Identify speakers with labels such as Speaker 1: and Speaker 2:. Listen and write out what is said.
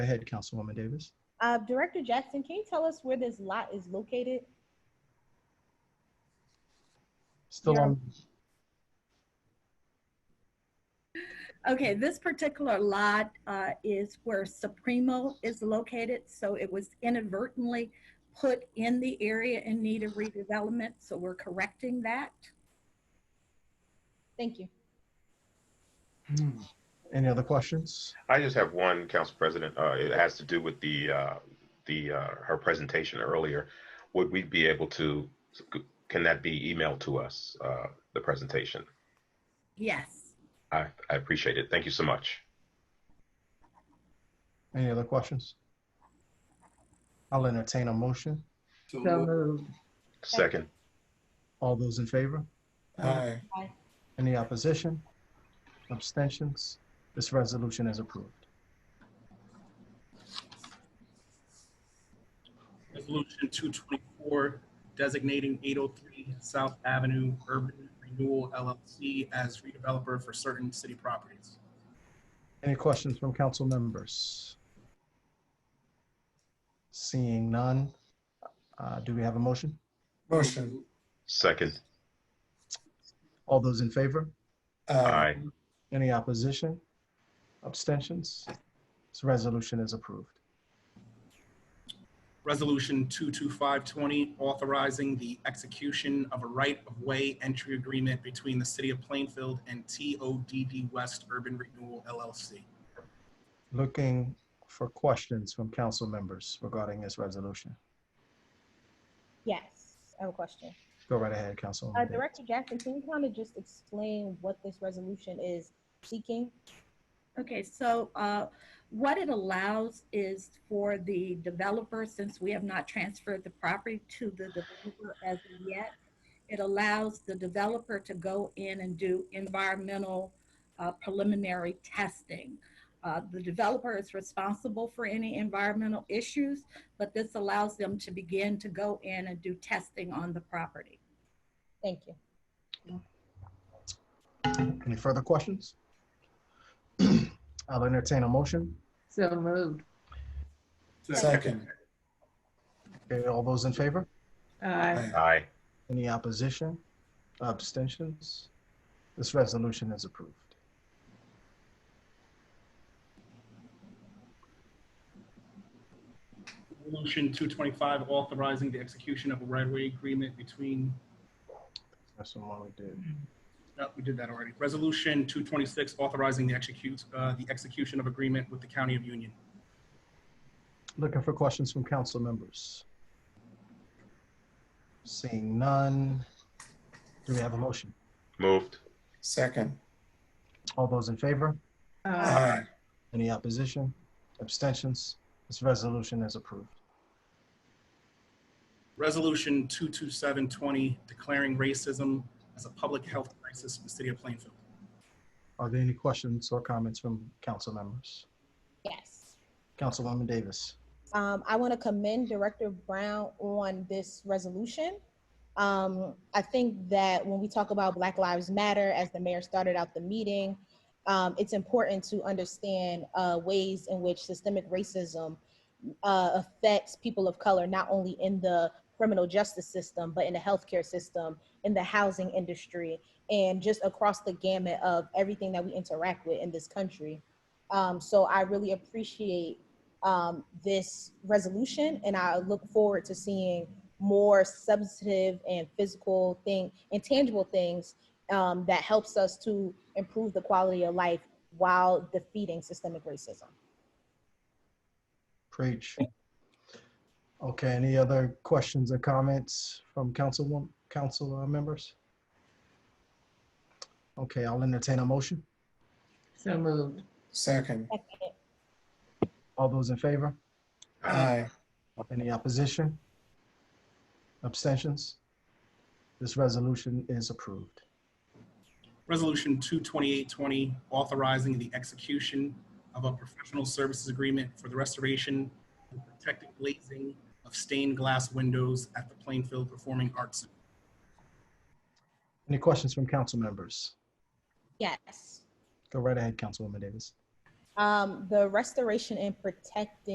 Speaker 1: ahead, Councilwoman Davis.
Speaker 2: Uh, Director Jackson, can you tell us where this lot is located?
Speaker 1: Still
Speaker 2: Yeah.
Speaker 1: on,
Speaker 3: Okay, this particular lot uh, is where Supremo is located, so it was inadvertently put in the area in need of redevelopment, so we're correcting that.
Speaker 2: Thank you.
Speaker 1: any other questions?
Speaker 4: I just have one, Council President. Uh, it has to do with the, uh, the, uh, her presentation earlier. Would we be able to, can that be emailed to us, uh, the presentation?
Speaker 3: Yes.
Speaker 4: I, I appreciate it. Thank you so much.
Speaker 1: Any other questions? I'll entertain a motion.
Speaker 5: So
Speaker 6: So
Speaker 5: moved.
Speaker 6: moved.
Speaker 4: Second,
Speaker 1: All those in favor?
Speaker 5: Aye.
Speaker 1: Any opposition? Abstentions? This resolution is approved.
Speaker 7: Resolution two twenty-four designating eight oh three South Avenue Urban Renewal LLC as redeveloper for certain city properties.
Speaker 1: Any questions from council members? Seeing none, uh, do we have a motion?
Speaker 5: Motion.
Speaker 4: second,
Speaker 1: All those in favor?
Speaker 4: aye.
Speaker 1: Any opposition? Abstentions? This resolution is approved.
Speaker 7: Resolution two two five twenty authorizing the execution of a right-of-way entry agreement between the city of Plainfield and TODD West Urban Renewal LLC.
Speaker 1: Looking for questions from council members regarding this resolution.
Speaker 2: Yes, I have a question.
Speaker 1: Go right ahead,
Speaker 2: Uh,
Speaker 1: Councilwoman. Davis.
Speaker 2: Director Jackson, can you kind of just explain what this resolution is seeking?
Speaker 3: Okay, so uh, what it allows is for the developer, since we have not transferred the property to the developer as of yet, it allows the developer to go in and do environmental uh, preliminary testing. Uh, The developer is responsible for any environmental issues, but this allows them to begin to go in and do testing on the property.
Speaker 2: Thank you.
Speaker 1: Any further questions? I'll entertain a motion.
Speaker 6: So moved.
Speaker 5: Second.
Speaker 1: Okay, all those in favor?
Speaker 6: Aye.
Speaker 4: Aye.
Speaker 1: Any opposition? Abstentions? This resolution is approved.
Speaker 7: Resolution two twenty-five authorizing the execution of a right-of-way agreement between
Speaker 1: That's the one we did.
Speaker 7: No, we did that already. Resolution 226, authorizing the execute, uh, the execution of agreement with the County of Union.
Speaker 1: Looking for questions from council members. Seeing none, do we have a motion?
Speaker 4: Moved,
Speaker 5: Second.
Speaker 1: All those in favor?
Speaker 6: Aye.
Speaker 5: Aye.
Speaker 1: Any opposition? Abstentions? This resolution is approved.
Speaker 7: Resolution 22720, declaring racism as a public health crisis in the city of Plainfield.
Speaker 1: Are there any questions or comments from council members?
Speaker 2: Yes.
Speaker 1: Councilwoman Davis.
Speaker 2: Um, I want to commend Director Brown on this resolution. Um, I think that when we talk about Black Lives Matter, as the mayor started out the meeting, um, it's important to understand uh, ways in which systemic racism uh, affects people of color, not only in the criminal justice system, but in the healthcare system, in the housing industry, and just across the gamut of everything that we interact with in this country. Um, so I really appreciate um, this resolution, and I look forward to seeing more substantive and physical thing and tangible things um, that helps us to improve the quality of life while defeating systemic racism.
Speaker 1: Preach. Okay, any other questions or comments from council, council uh, members? Okay, I'll entertain a motion.
Speaker 6: So moved.
Speaker 5: Second.
Speaker 2: Second.
Speaker 1: All those in favor?
Speaker 5: Aye.
Speaker 1: Any opposition? Abstentions? This resolution is approved.
Speaker 7: Resolution 22820, authorizing the execution of a professional services agreement for the restoration and protective glazing of stained glass windows at the Plainfield Performing Arts Center.
Speaker 1: Any questions from council members?
Speaker 2: Yes.
Speaker 1: Go right ahead, Councilwoman Davis.
Speaker 2: Um, the restoration and protecting